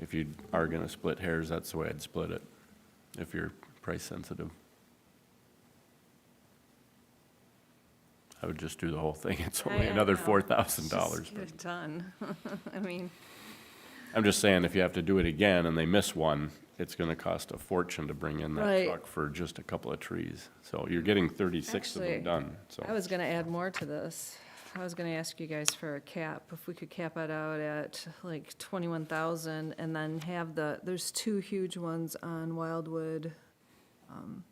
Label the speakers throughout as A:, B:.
A: if you are gonna split hairs, that's the way I'd split it, if you're price sensitive. I would just do the whole thing. It's
B: I-
A: only
B: I
A: another
B: know.
A: four thousand dollars.
B: Just get it done. I mean,
A: I'm just saying, if you have to do it again and they miss one, it's gonna cost a fortune to bring in that
B: Right.
A: truck for just a couple of trees. So you're getting thirty-six of them
B: Actually,
A: done, so.
B: I was gonna add more to this. I was gonna ask you guys for a cap, if we could cap it out at like twenty-one thousand and then have the, there's two huge ones on Wildwood. um,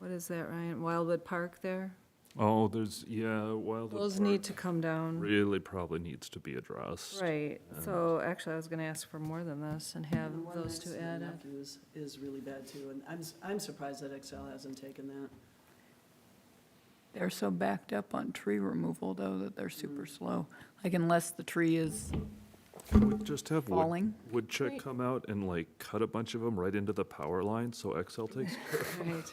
B: What is that, Ryan? Wildwood Park there?
C: Oh, there's, yeah, Wildwood
B: Those
C: Park
B: need to come down.
C: Really probably needs to be addressed.
B: Right, so actually I was gonna ask for more than this and have
D: The one
B: those
D: next
B: two
D: to the
B: added.
D: Nephew Is, is really bad too, and I'm, s- I'm surprised that Excel hasn't taken that.
E: They're so backed up on tree removal, though, that they're super slow. Like unless the tree is
C: Would Just have wood,
E: falling.
C: woodchuck
B: Right.
C: come out and like cut a bunch of them right into the power line, so Excel takes,
B: Right.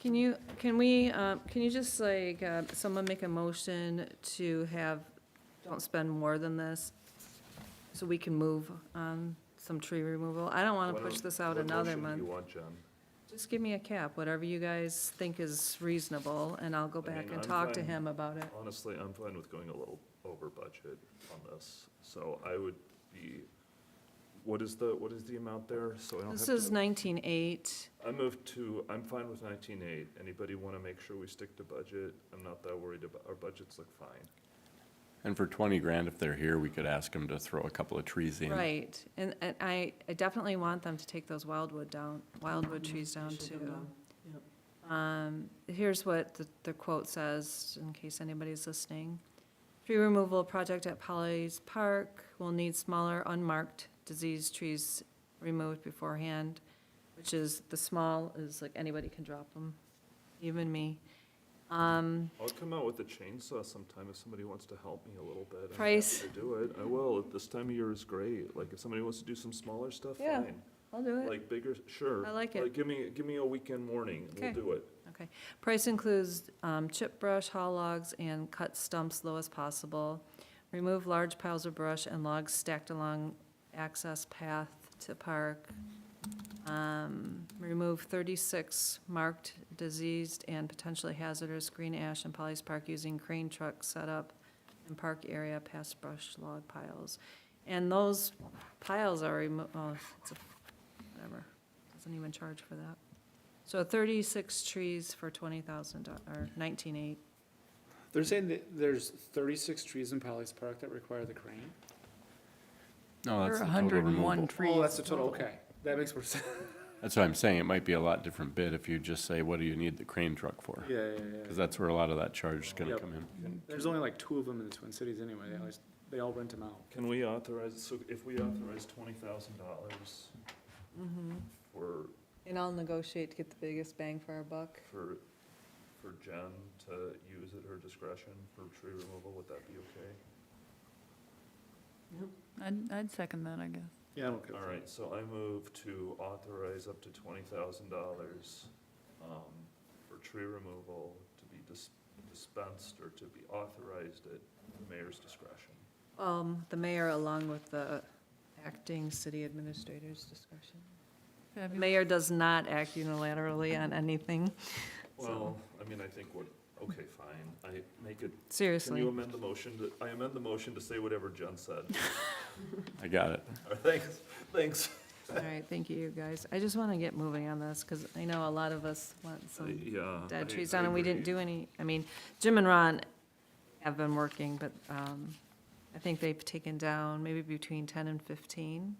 B: Can you, can we, um, can you just like, uh, someone make a motion to have, don't spend more than this? So we can move on some tree removal? I don't want to push this out another month. Just give me a cap, whatever you guys think is reasonable, and I'll go
C: I
B: back
C: mean,
B: and
C: I'm
B: talk to
C: fine.
B: him about it.
C: Honestly, I'm fine with going a little over budget on this, so I would be, what is the, what is the amount there? So I don't have
B: This
C: to.
B: is nineteen-eight.
C: I moved to, I'm fine with nineteen eight. Anybody want to make sure we stick to budget? I'm not that worried about, our budgets look fine.
A: And for twenty grand, if they're here, we could ask them to throw a couple of trees in.
B: Right, and, and I, I definitely want them to take those wildwood down, wildwood trees down
D: Should come
B: too.
D: down. Yep.
B: Um, here's what the, the quote says, in case anybody's listening. Tree removal project at Polly's Park will need smaller unmarked diseased trees removed beforehand, which is, the small is like anybody can drop them, even me. Um,
C: I'll come out with a chainsaw sometime if somebody wants to help me a little bit. I'm happy
B: Price.
C: To do it. I will. This time of year is great. Like, if somebody wants to do some smaller stuff,
B: Yeah.
C: fine.
B: I'll do it.
C: Like bigger, sure.
B: I like it.
C: Give me, give me a weekend warning. We'll
B: Okay.
C: do it.
B: Price includes um, chip brush, haul logs, and cut stumps low as possible. Remove large piles of brush and logs stacked along access path to park. Um, Remove 36 marked diseased and potentially hazardous green ash in Polly's Park using crane truck setup in park area past brush log piles. And those piles are remo, oh, it's a, whatever, doesn't even charge for that. So thirty-six trees for twenty thousand, or nineteen-eight.
F: They're saying that there's thirty-six trees in Polly's Park that require the crane?
A: No,
E: There
A: Oh, that's
E: are
A: the total
E: 101
A: removal.
E: trees.
F: Oh, that's the total, okay. That makes more sense.
A: That's what I'm saying. It might be a lot different bid if you just say, what do you need the crane truck for?
F: Yeah, yeah,
A: Because that's where a lot of that charge is gonna
F: Yep.
A: come in.
F: There's only like two of them in the Twin Cities anyway. They always, they all rent them out.
C: Can we authorize, so if we authorize twenty thousand dollars for,
B: Mm-hmm. And I'll negotiate to get the biggest bang for our buck.
C: for, for Jen to use at her discretion for tree removal, would that be okay?
E: I'd, I'd second that, I guess.
F: Yeah, I'm okay with
C: All
F: that.
C: right, so I move to authorize up to twenty thousand dollars, um, for tree removal to be dis- dispensed or to be authorized at the mayor's discretion.
B: Um, the mayor along with the acting city administrator's discretion. Mayor does not act unilaterally on anything,
C: Well, I mean, I think what, okay, fine, I make it, can you
B: seriously.
C: amend the motion to, I amend the motion to say whatever Jen said.
A: I got it.
C: All right, Thanks, thanks.
B: All right, thank you, you guys. I just want to get moving on this, because I know a lot of us want
C: Uh,
B: some
C: Yeah.
B: dead
C: I-
B: trees
C: I
B: down, and we didn't
C: agree.
B: do any, I mean, Jim and Ron have been working, but, um, I think they've taken down maybe between ten and fifteen.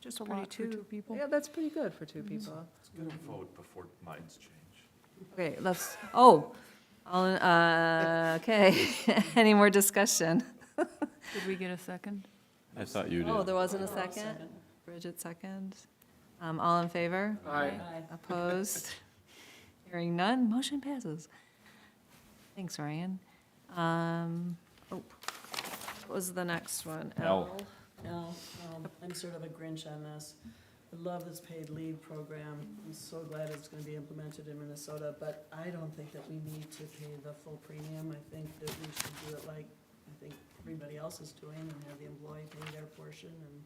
E: Just
B: a lot for two
E: people.
B: Yeah, that's pretty good for two people.
C: Let's get a vote before minds change.
B: Okay, let's, oh, all, in- uh, okay, any more discussion?
E: Did we get a second?
A: I thought you
B: Oh,
A: did.
B: there wasn't a
D: Oh, I'll
B: second? Bridget second. Um, all in favor?
F: Aye.
B: Opposed? Hearing none, motion passes. Thanks, Ryan. Um, oh, what was the next one?
A: L.
D: No, um, I'm sort of a Grinch on this. I love this paid leave program. I'm so glad it's gonna be implemented in Minnesota, but I don't think that we need to pay the full premium. I think that we should do it like, I think everybody else is doing and have the employee pay their portion and